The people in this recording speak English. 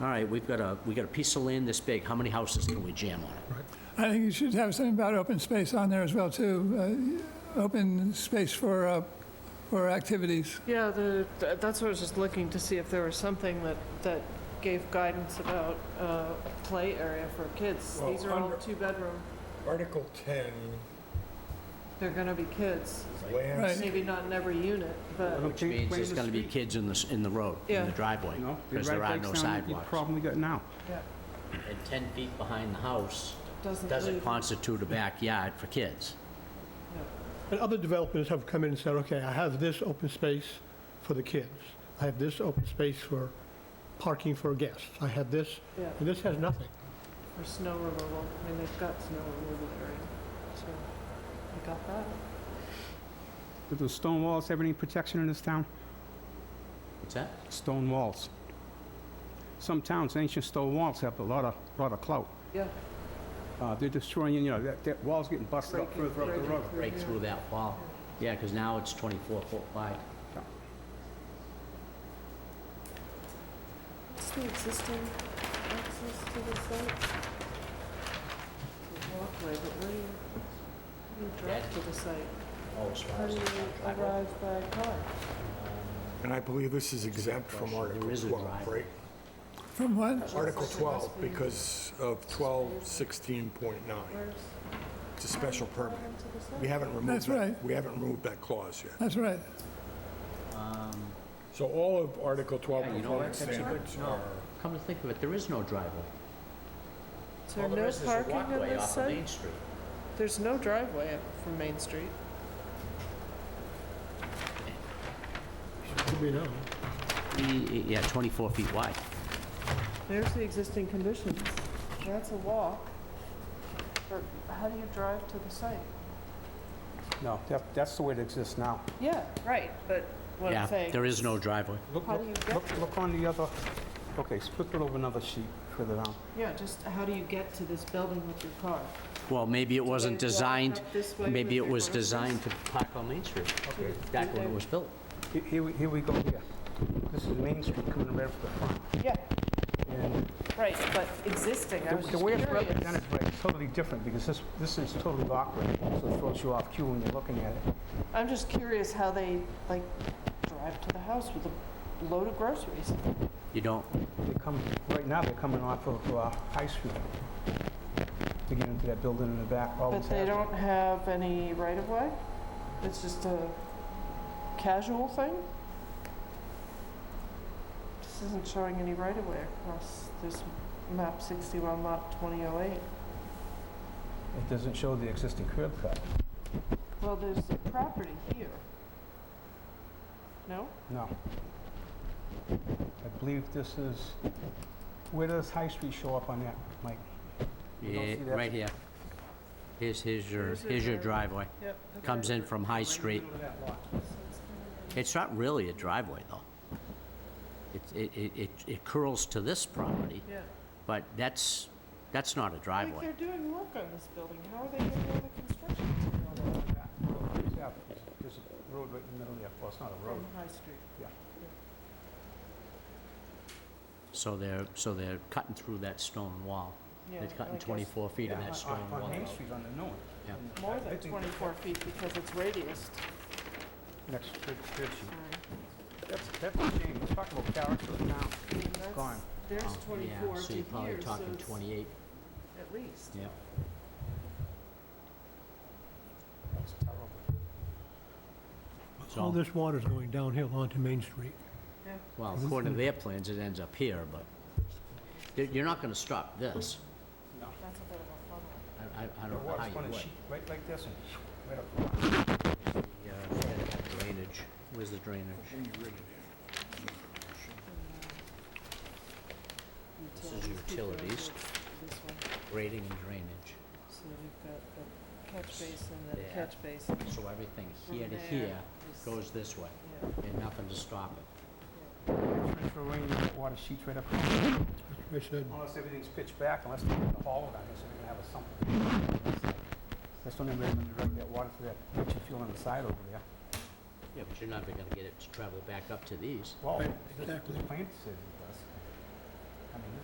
all right, we've got a, we got a piece of land this big, how many houses can we jam on it? I think you should have something about open space on there as well, too. Uh, Open space for, uh, for activities. Yeah, the, th- that's what I was just looking to see if there was something that, that gave guidance about uh, play area for kids. Well, These are all under- two-bedroom, Article 10, they're gonna be kids. lands, Right. Maybe not in every unit, but, Which means there's gonna be kids in the, s- in the road, in Yeah. the driveway, No, it because there are right no breaks down the sidewalks. problem we got now. yeah, And 10 feet behind the house doesn't doesn't leave- constitute a backyard for kids. And other developers have come in and said, okay, I have this open space for the kids. I have this open space for parking for guests. I have this, Yeah, and this has nothing. for snow removal, I mean, they've got snow removal area, so I got that. Do those stone walls have any protection in this town? What's that? Stone walls. Some towns, ancient stone walls have a lot of, lot of clout. Yeah. Uh, They're destroying, you know, that, that wall's getting busted up breaking- further up the breaking road. Break yeah. through that wall. Yeah, because now it's 24 foot wide. What's the existing access to the site? It's a Walkway, but where do you, how do you drive to the site? Oh, as far How as do the you driveway. arrive by car? and I believe this is exempt from question. There Article is a 12, right? From what? Article 12, because of 1216.9. It's a special permit. We haven't removed That's that, right. we haven't removed that clause yet. That's right. So all of Article 12 Yeah, you know what, performance that's a good- standards are, Come to think of it, there is no driveway. Is All there Oh, there no is is a parking on walkway this off of site? Main Street. There's no driveway up from Main Street. We know. E- Yeah, 24 feet wide. There's the existing conditions. That's a walk. But how do you drive to the site? No, that, that's the way it exists now. Yeah, right, but what Yeah, I'm saying. there is no driveway. Look, How do you look, get look- look on the other, okay, split it over another sheet further down. Yeah, just how do you get to this building with your car? Well, maybe it wasn't they walk designed, up this way with maybe it their was horses? designed to park on Main Street, Okay, back when it was built. he- here, we- here we go here. This is Main Street coming right from the front. Yeah, And right, but existing, I was The the just way it's curious. represented, Brett, is totally different, because this, this is totally awkward, so it throws you off cue when you're looking at it. I'm just curious how they, like, drive to the house with a load of groceries. You don't, They come, right now, they're coming off of uh, High Street to get into that building in the back, always But they have. don't have any right of way? It's just a casual thing? This isn't showing any right of way across this map 61 lot 2008. It doesn't show the existing curb cut. Well, there's a property here. No? No. I believe this is, where does High Street show up on that, Mike? You don't eh, see that? right here. Here's, here's your, Here's your here's your driveway. Yep. Comes in from High Street. It's not really a driveway, though. It's- It, it, it it curls to this property, Yeah. but that's, that's not a Like, driveway. they're doing work on this building. How are they getting all the construction material out There's a road right in the middle there, well, it's not a road. from High Street? So they're, so they're cutting through that stone wall. Yeah, They're I cutting guess 24 feet of Yeah, that on- stone On wall. Main Street on the new one. Yeah. And More I- I than think 24 feet because it's radiused. Mm-hmm. Next, third, third sheet. Sorry. That's, that's a shame, let's talk about character now. I mean, that's- Gone. There's Oh, yeah, 24 so to you're probably here, so talking it's 28, at least. yeah. That's terrible. So- All this water's going downhill onto Main Street. Well, according to their plans, it ends up here, but you're- you're not going to stop this. That's a bit of a funnel. I- I, I The don't know how water's you gonna would. shoot right like this and right up the front. Yeah, we gotta have Drainage, where's the drainage? This is utilities. This one, Grading and drainage. so you've got the catch basin, the There. catch basin. So everything from here to there here is- goes this way, yeah, and nothing to stop it. yeah. Transfer rain, that water sheets right up. front. Commissioner, Unless everything's pitched back, unless they have the hollow down here, so we can have a something. That's the only way to direct that water to that pitch you feel on the side over there. Yeah, but you're never gonna get it to travel back up to these. Well, Right, this is exactly. the plan decision.